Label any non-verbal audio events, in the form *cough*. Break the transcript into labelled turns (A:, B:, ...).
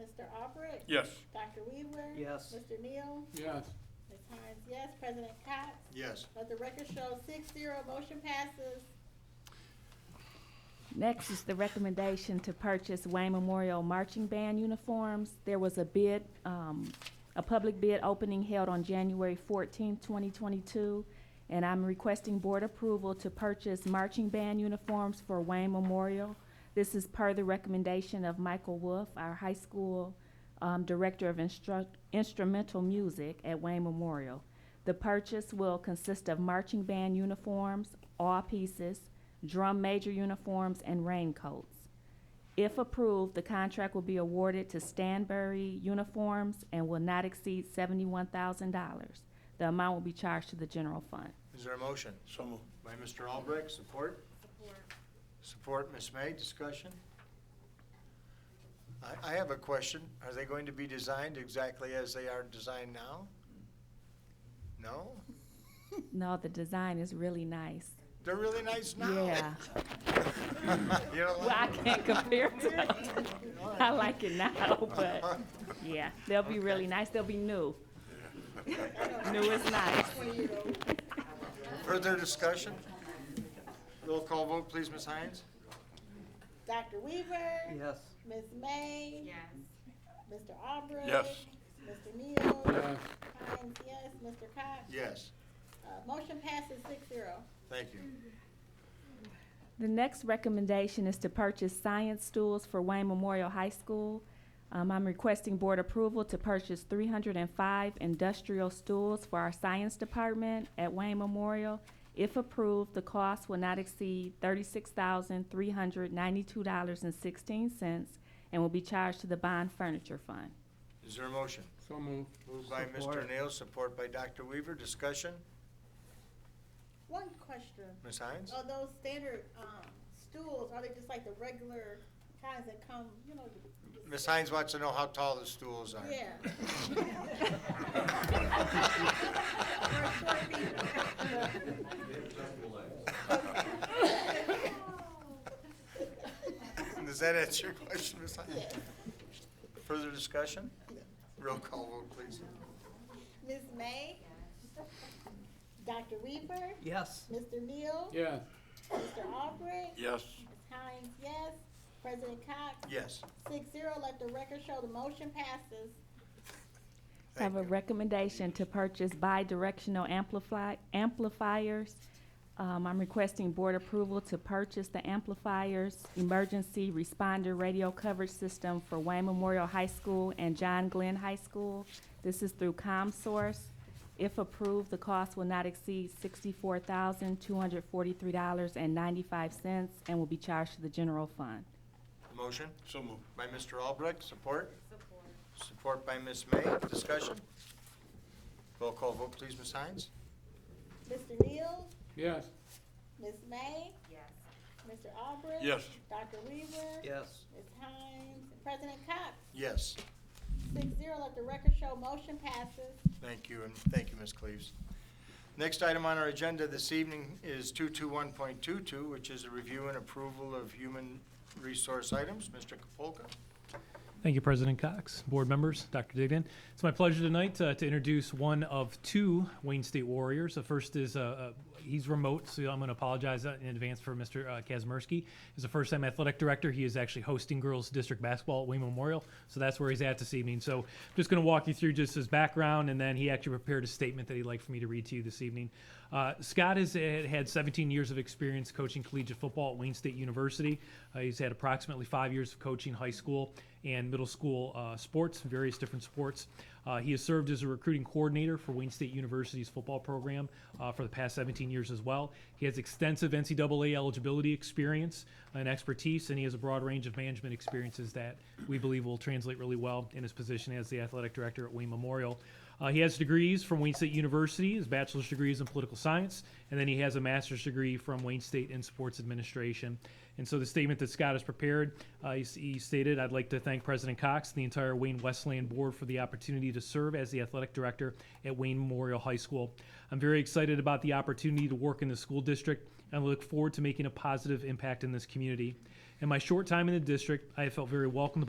A: Mr. Albrecht?
B: Yes.
A: Dr. Weaver?
C: Yes.
A: Mr. Neal?
D: Yes.
A: Ms. Hines, yes. President Cox?
D: Yes.
A: Let the record show six zero, motion passes.
E: Next is the recommendation to purchase Wayne Memorial Marching Band uniforms. There was a bid, um, a public bid opening held on January fourteenth, twenty twenty-two, and I'm requesting board approval to purchase marching band uniforms for Wayne Memorial. This is per the recommendation of Michael Wolf, our high school, um, director of instru- instrumental music at Wayne Memorial. The purchase will consist of marching band uniforms, all pieces, drum major uniforms, and raincoats. If approved, the contract will be awarded to Stanbury Uniforms and will not exceed seventy-one thousand dollars. The amount will be charged to the general fund.
D: Is there a motion?
B: So moved.
D: By Mr. Albrecht, support? Support. Support, Ms. May, discussion? I, I have a question. Are they going to be designed exactly as they are designed now? No?
E: No, the design is really nice.
D: They're really nice now.
E: Yeah.
D: *laughs* You don't
E: Well, I
D: like
E: can't compare it to, I like it now, but, yeah, they'll be really nice. They'll be new. *laughs* New is nice.
D: *laughs* Further discussion? Roll call vote, please, Ms. Hines?
A: Dr. Weaver?
C: Yes.
A: Ms. May?
F: Yes.
A: Mr. Albrecht?
B: Yes.
A: Mr. Neal?
D: Yes.
A: Hines, yes. Mr. Cox?
D: Yes,
A: Uh, motion passes six zero.
D: thank you.
E: The next recommendation is to purchase science stools for Wayne Memorial High School. Um, I'm requesting board approval to purchase three hundred and five industrial stools for our science department at Wayne Memorial. If approved, the cost will not exceed thirty-six thousand, three hundred ninety-two dollars and sixteen cents and will be charged to the bond furniture fund.
D: Is there a motion?
G: So moved.
D: Moved by Mr.
C: Support.
D: Nail, support by Dr. Weaver. Discussion?
A: One question.
D: Ms. Hines?
A: Are those standard, um, stools, are they just like the regular kinds that come, you know? the-
D: Ms. Hines wants to know how tall the stools are.
A: Yeah. Or short people.
D: *laughs* Does that answer your question, Ms. Hines? Further discussion? Roll call vote, please.
A: Ms. May? Dr. Weaver?
C: Yes.
A: Mr. Neal?
G: Yes.
A: Mr. Albrecht?
B: Yes.
A: Ms. Hines, yes. President Cox?
D: Yes.
A: Six zero, let the record show the motion passes.
E: I have a
D: Thank you.
E: recommendation to purchase bi-directional amplify, amplifiers. Um, I'm requesting board approval to purchase the amplifiers, emergency responder radio coverage system for Wayne Memorial High School and John Glenn High School. This is through ComSource. If approved, the cost will not exceed sixty-four thousand, two hundred forty-three dollars and ninety-five cents and will be charged to the general fund.
D: Motion
B: So moved.
D: by Mr. Albrecht, support?
F: Support.
D: Support by Ms. May. Discussion? Roll call vote, please, Ms. Hines?
A: Mr. Neal?
G: Yes.
A: Ms. May?
F: Yes.
A: Mr. Albrecht?
B: Yes.
A: Dr. Weaver?
C: Yes.
A: Ms. Hines, and President Cox,
D: Yes,
A: six zero, let the record show motion passes.
D: thank you, and thank you, Ms. Cleaves. Next item on our agenda this evening is 221.22, which is a review and approval of human resource items. Mr. Kapolka?
H: Thank you, President Cox, board members, Dr. Dignan. It's my pleasure tonight uh, to introduce one of two Wayne State Warriors. The first is, uh, uh, he's remote, so I'm going to apologize uh, in advance for Mr. uh, Kazmersky. He's the first-time athletic director. He is actually hosting girls' district basketball at Wayne Memorial, so that's where he's at this evening. So I'm just going to walk you through just his background, and then he actually prepared a statement that he'd like for me to read to you this evening. Uh, Scott has had had 17 years of experience coaching collegiate football at Wayne State University. Uh, he's had approximately five years of coaching high school and middle school uh, sports, various different sports. Uh, he has served as a recruiting coordinator for Wayne State University's football program uh, for the past 17 years as well. He has extensive NCAA eligibility experience and expertise, and he has a broad range of management experiences that we believe will translate really well in his position as the athletic director at Wayne Memorial. Uh, he has degrees from Wayne State University, his bachelor's degree is in political science, and then he has a master's degree from Wayne State in sports administration. And so the statement that Scott has prepared, uh, he, he stated, I'd like to thank President Cox and the entire Wayne Westland Board for the opportunity to serve as the athletic director at Wayne Memorial High School. I'm very excited about the opportunity to work in the school district and look forward to making a positive impact in this community. In my short time in the district, I have felt very welcomed